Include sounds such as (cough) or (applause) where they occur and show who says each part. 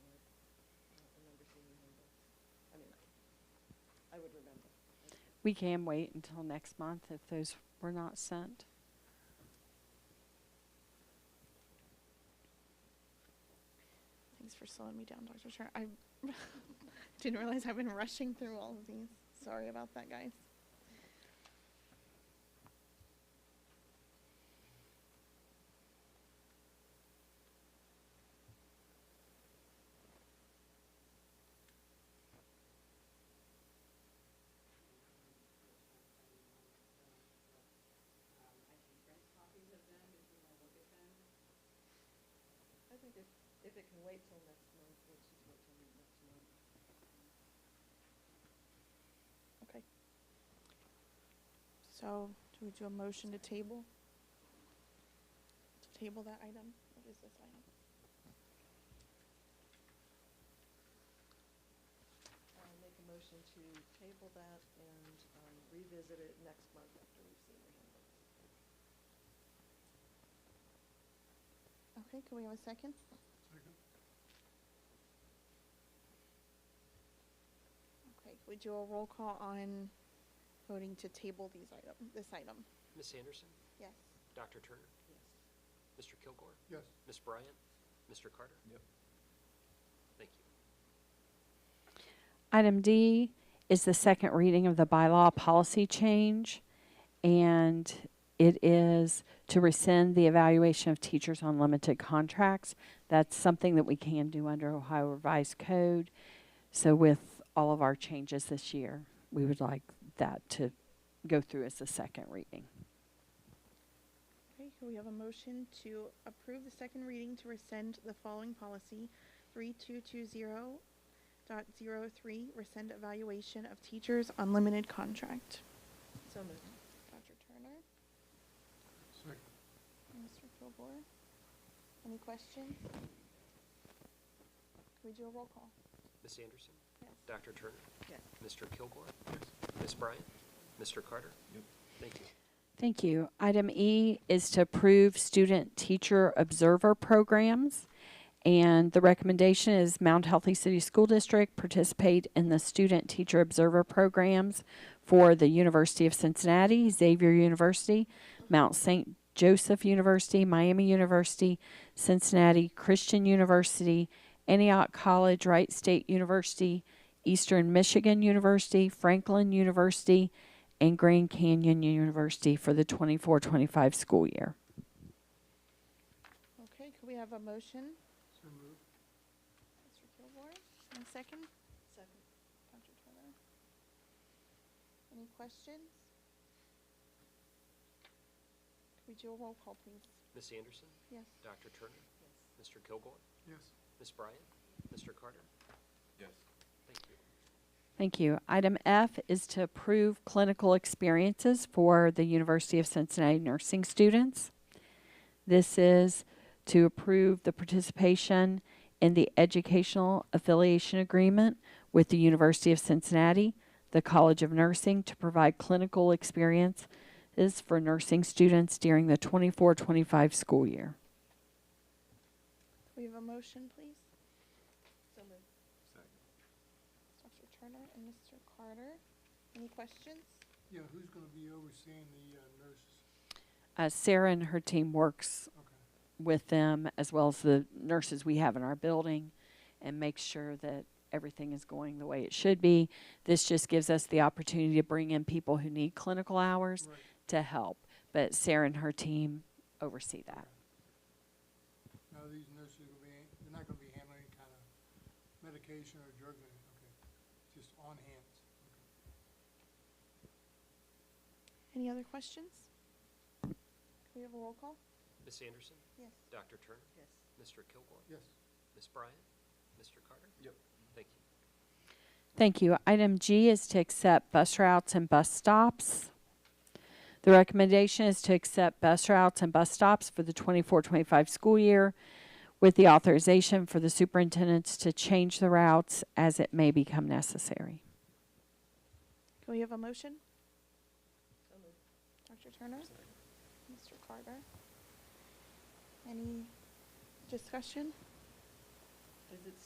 Speaker 1: would remember.
Speaker 2: We can wait until next month if those were not sent.
Speaker 3: Thanks for slowing me down, Dr. Turner. I (laughs) didn't realize I've been rushing through all of these. Sorry about that, guys.
Speaker 1: I think if, if it can wait till next month, which is what till next month.
Speaker 3: Okay. So, do we do a motion to table? To table that item? What is this item?
Speaker 1: I'll make a motion to table that and um, revisit it next month after we've seen the handbook.
Speaker 3: Okay, can we have a second?
Speaker 4: Second.
Speaker 3: Okay, can we do a roll call on voting to table these item, this item?
Speaker 5: Miss Anderson,
Speaker 3: Yes.
Speaker 5: Dr. Turner,
Speaker 1: Yes.
Speaker 5: Mr. Kilgore,
Speaker 4: Yes.
Speaker 5: Miss Bryant, Mr. Carter.
Speaker 4: Yep.
Speaker 5: Thank you.
Speaker 2: Item D is the second reading of the bylaw policy change, and it is to rescind the evaluation of teachers on limited contracts. That's something that we can do under Ohio Revised Code. So with all of our changes this year, we would like that to go through as the second reading.
Speaker 3: Okay, can we have a motion to approve the second reading to rescind the following policy, three-two-two-zero dot zero-three, rescind evaluation of teachers on limited contract?
Speaker 1: So moved.
Speaker 3: Dr. Turner,
Speaker 4: Second.
Speaker 3: and Mr. Kilgore, any questions? Can we do a roll call?
Speaker 5: Miss Anderson,
Speaker 3: Yes.
Speaker 5: Dr. Turner,
Speaker 1: Yes.
Speaker 5: Mr. Kilgore, Miss Bryant, Mr. Carter.
Speaker 4: Yep.
Speaker 5: Thank you.
Speaker 2: Thank you. Item E is to approve student teacher observer programs. And the recommendation is Mount Healthy City School District participate in the student teacher observer programs for the University of Cincinnati, Xavier University, Mount St. Joseph University, Miami University, Cincinnati Christian University, Antioch College, Wright State University, Eastern Michigan University, Franklin University, and Grand Canyon University for the 24 25 school year.
Speaker 3: Okay, can we have a motion?
Speaker 4: So moved.
Speaker 3: Mr. Kilgore, and a second?
Speaker 1: Second.
Speaker 3: Dr. Turner? Any questions? Could we do a roll call, please?
Speaker 5: Miss Anderson,
Speaker 3: Yes.
Speaker 5: Dr. Turner,
Speaker 1: Yes.
Speaker 5: Mr. Kilgore,
Speaker 4: Yes.
Speaker 5: Miss Bryant, Mr. Carter.
Speaker 4: Yes.
Speaker 5: Thank you.
Speaker 2: Thank you. Item F is to approve clinical experiences for the University of Cincinnati nursing students. This is to approve the participation in the Educational Affiliation Agreement with the University of Cincinnati, the College of Nursing, to provide clinical experiences for nursing students during the 24 25 school year.
Speaker 3: Could we have a motion, please?
Speaker 1: So moved.
Speaker 4: Second.
Speaker 3: Dr. Turner and Mr. Carter, any questions?
Speaker 4: Yeah, who's gonna be overseeing the uh, nurses?
Speaker 2: Uh, Sarah and her team works
Speaker 4: Okay.
Speaker 2: with them as well as the nurses we have in our building and make sure that everything is going the way it should be. This just gives us the opportunity to bring in people who need clinical hours
Speaker 4: Right.
Speaker 2: to help. But Sarah and her team oversee that.
Speaker 4: Now, these nurses are gonna be, they're not gonna be handling any kind of medication or drug, or anything, okay? Just on hands. Okay.
Speaker 3: Any other questions? Could we have a roll call?
Speaker 5: Miss Anderson,
Speaker 3: Yes.
Speaker 5: Dr. Turner,
Speaker 1: Yes.
Speaker 5: Mr. Kilgore,
Speaker 4: Yes.
Speaker 5: Miss Bryant, Mr. Carter.
Speaker 4: Yep.
Speaker 5: Thank you.
Speaker 2: Thank you. Item G is to accept bus routes and bus stops. The recommendation is to accept bus routes and bus stops for the 24-25 school year with the authorization for the superintendents to change the routes as it may become necessary.
Speaker 3: Can we have a motion?
Speaker 1: So moved.
Speaker 3: Dr. Turner? Mr. Carter? Any discussion?
Speaker 1: Is it